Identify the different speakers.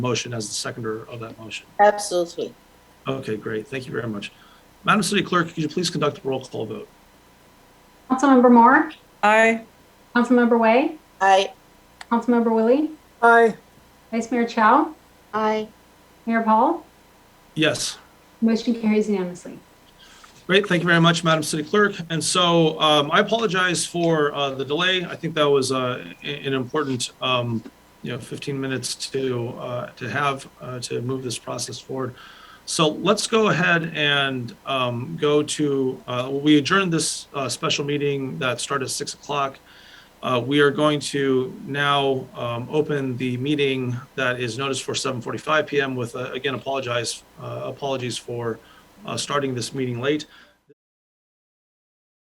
Speaker 1: motion as the seconder of that motion.
Speaker 2: Absolutely.
Speaker 1: Okay, great. Thank you very much. Madam City Clerk, could you please conduct a roll call vote?
Speaker 3: Councilmember Moore,
Speaker 4: Aye.
Speaker 3: Councilmember Way,
Speaker 2: Aye.
Speaker 3: Councilmember Willie,
Speaker 5: aye,
Speaker 3: Vice Mayor Chow,
Speaker 2: Aye.
Speaker 3: Mayor Paul.
Speaker 1: Yes.
Speaker 3: Motion carries unanimously.
Speaker 1: Great, thank you very much, Madam City Clerk. And so um, I apologize for uh, the delay. I think that was uh, a- an important, um, you know, 15 minutes to, uh, to have, uh, to move this process forward. So let's go ahead and um, go to, uh, we adjourned this uh, special meeting that started at 6 o'clock. Uh, We are going to now um, open the meeting that is noticed for 7:45 PM with, uh, again, apologize, uh, apologies for uh, starting this meeting late.